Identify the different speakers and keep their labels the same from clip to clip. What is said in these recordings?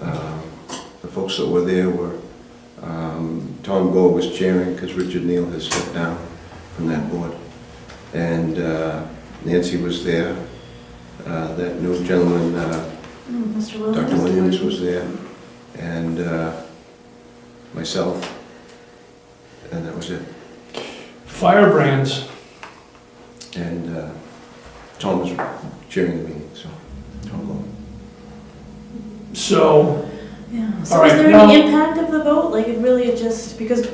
Speaker 1: Um, folks that were there were, um, Tom Gore was chairing because Richard Neal has stepped down from that board. And uh, Nancy was there, uh, that new gentleman, uh,
Speaker 2: Mm, Mr. Williams.
Speaker 1: Dr. Williams was there, and uh, myself, and that was it.
Speaker 3: Firebrands,
Speaker 1: And uh, Tom was chairing the meeting, so, Tom Gore.
Speaker 3: so,
Speaker 2: Yeah, so
Speaker 3: All
Speaker 2: is
Speaker 3: right,
Speaker 2: there
Speaker 3: now-
Speaker 2: any impact of the vote? Like, it really it just, because,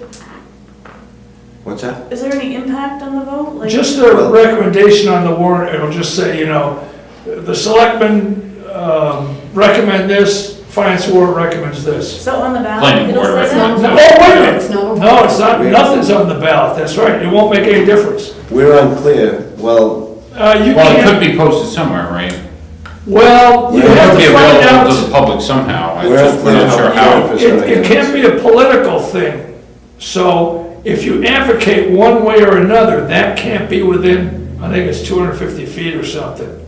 Speaker 1: What's that?
Speaker 2: is there any impact on the vote? Like,
Speaker 3: just the recommendation on the warrant, it'll just say, you know, the selectmen um, recommend this, finance warrant recommends this.
Speaker 2: So on the ballot,
Speaker 4: Planning
Speaker 2: it'll
Speaker 4: board
Speaker 2: say that?
Speaker 4: recommends.
Speaker 3: No, wait a minute,
Speaker 5: It's not,
Speaker 3: no, it's not, nothing's on the ballot, that's right, it won't make any difference.
Speaker 1: We're unclear, well,
Speaker 3: Uh, You
Speaker 4: Well, it could
Speaker 3: can't,
Speaker 4: be posted somewhere, right?
Speaker 3: well, you
Speaker 1: Well, it
Speaker 3: have
Speaker 4: Be
Speaker 3: to find
Speaker 4: available to the
Speaker 3: out,
Speaker 4: public somehow, I'm
Speaker 1: Where's
Speaker 4: just not
Speaker 1: the-
Speaker 4: sure how.
Speaker 1: public.
Speaker 3: it, it can't be a political thing. So if you advocate one way or another, that can't be within, I think it's 250 feet or something.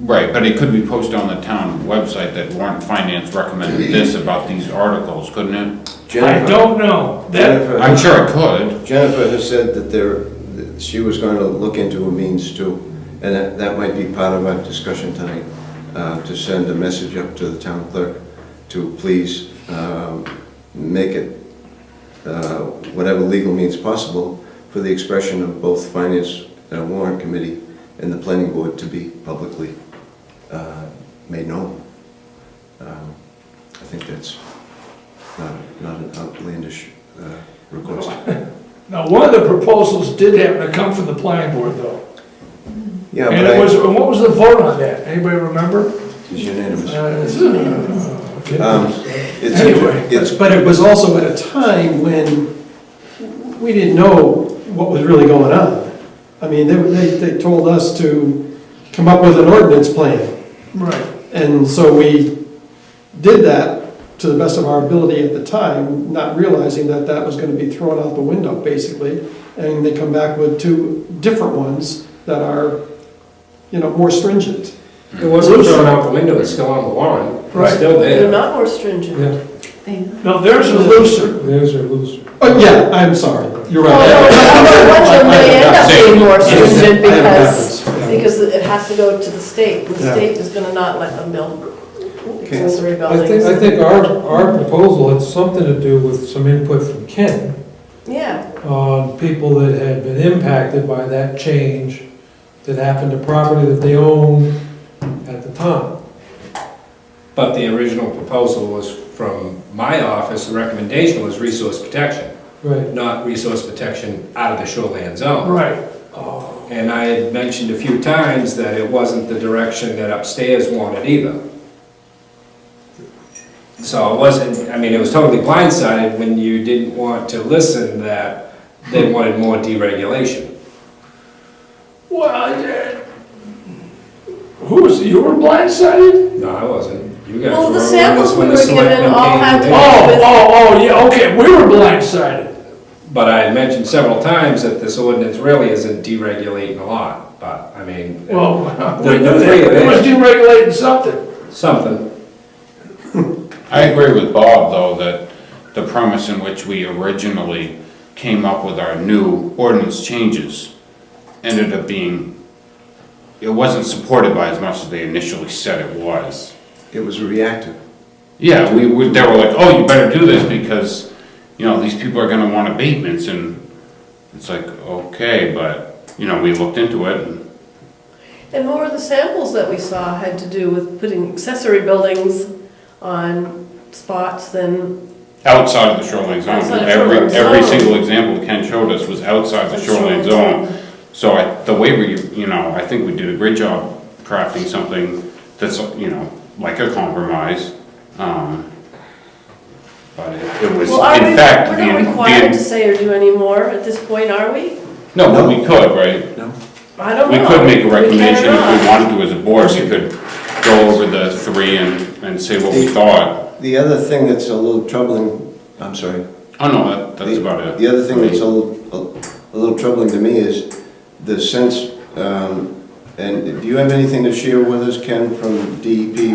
Speaker 4: Right, but it could be posted on the town website that Warren Finance recommended this about these articles, couldn't it?
Speaker 3: I
Speaker 1: Jennifer,
Speaker 3: don't know. That,
Speaker 1: Jennifer,
Speaker 4: I'm sure it could.
Speaker 1: Jennifer has said that there, that she was going to look into a means too, and that, that might be part of our discussion tonight, uh, to send a message up to the town clerk to please um, make it uh, whatever legal means possible for the expression of both Finance uh, Warrant Committee and the Planning Board to be publicly uh, made known. Um, I think that's not, not an outlandish uh, request.
Speaker 3: now, one of the proposals did happen to come from the planning board though.
Speaker 1: Yeah,
Speaker 3: And
Speaker 1: but
Speaker 3: it
Speaker 1: I-
Speaker 3: was, and what was the vote on that? Anybody remember?
Speaker 1: it's unanimous.
Speaker 3: Uh, it's- okay.
Speaker 1: Um, It's,
Speaker 3: Anyway.
Speaker 1: it's,
Speaker 6: But it was also at a time when we didn't know what was really going on. I mean, they, they, they told us to come up with an ordinance plan.
Speaker 3: Right.
Speaker 6: And so we did that to the best of our ability at the time, not realizing that that was gonna be thrown out the window, basically. And they come back with two different ones that are, you know, more stringent.
Speaker 7: It wasn't thrown out the window, it's still on the warrant.
Speaker 3: Right.
Speaker 7: It's still
Speaker 5: they're
Speaker 7: there.
Speaker 5: not more stringent.
Speaker 7: Yeah.
Speaker 5: They are.
Speaker 3: Now, there's a looser.
Speaker 7: There's a loose.
Speaker 6: Oh, yeah, I'm sorry, you're
Speaker 5: Well,
Speaker 6: right.
Speaker 5: no, I wonder what they end up being more stringent
Speaker 6: I have a
Speaker 5: because,
Speaker 6: preference, yeah.
Speaker 5: because it has to go to the state. The
Speaker 6: Yeah.
Speaker 5: state is gonna not let them build accessory
Speaker 7: I think,
Speaker 5: buildings.
Speaker 7: I think our, our proposal had something to do with some input from Ken
Speaker 5: Yeah,
Speaker 7: on people that had been impacted by that change that happened to property that they owned at the time.
Speaker 8: But the original proposal was from my office, the recommendation was resource protection,
Speaker 7: Right,
Speaker 8: not resource protection out of the shoreline zone.
Speaker 3: Right.
Speaker 7: Um,
Speaker 8: And I had mentioned a few times that it wasn't the direction that upstairs wanted either. So it wasn't, I mean, it was totally blindsided when you didn't want to listen that they wanted more deregulation.
Speaker 3: Well, yeah. who was, you were blindsided?
Speaker 8: No, I wasn't. You guys were.
Speaker 5: well, the
Speaker 8: when
Speaker 5: samples
Speaker 8: this-
Speaker 5: we
Speaker 8: when
Speaker 5: were
Speaker 8: the
Speaker 5: given
Speaker 8: selectmen
Speaker 5: all
Speaker 8: came
Speaker 5: had to
Speaker 8: in.
Speaker 5: do
Speaker 3: Oh,
Speaker 5: with,
Speaker 3: oh, oh, yeah, okay, we were blindsided.
Speaker 8: But I had mentioned several times that this ordinance really isn't deregulating a lot, but, I mean,
Speaker 3: Well,
Speaker 8: The-
Speaker 3: we
Speaker 8: the
Speaker 3: knew
Speaker 8: three
Speaker 3: that.
Speaker 8: of
Speaker 3: It was
Speaker 8: us.
Speaker 3: deregulating something.
Speaker 8: something.
Speaker 4: I agree with Bob, though, that the premise in which we originally came up with our new ordinance changes ended up being, it wasn't supported by as much as they initially said it was.
Speaker 1: it was reactive.
Speaker 4: Yeah, we, we, they were like, oh, you better do this because, you know, these people are gonna want abatements and it's like, okay, but, you know, we looked into it and
Speaker 5: and more of the samples that we saw had to do with putting accessory buildings on spots than
Speaker 4: outside of the shoreline zone.
Speaker 5: Outside the
Speaker 4: Every,
Speaker 5: shoreline
Speaker 4: every
Speaker 5: zone.
Speaker 4: single example Ken showed us was outside the shoreline zone. So I, the way we, you know, I think we did a great job crafting something that's, you know, like a compromise. Um, But it it was,
Speaker 5: Well, are we,
Speaker 4: in fact, the,
Speaker 5: we're not required to
Speaker 4: the,
Speaker 5: say or do any more at this point, are we?
Speaker 4: no, but we could, right?
Speaker 5: I don't
Speaker 4: We
Speaker 5: know.
Speaker 4: could make a recommendation
Speaker 5: We
Speaker 4: if we
Speaker 5: can or not.
Speaker 4: wanted to as a board, we could go over the three and, and say what we thought.
Speaker 1: The other thing that's a little troubling, I'm sorry.
Speaker 4: Oh, no, that, that's
Speaker 1: The-
Speaker 4: about it.
Speaker 1: The other thing that's a little, a little troubling to me is the sense, um, and do you have anything to share with us, Ken, from DEP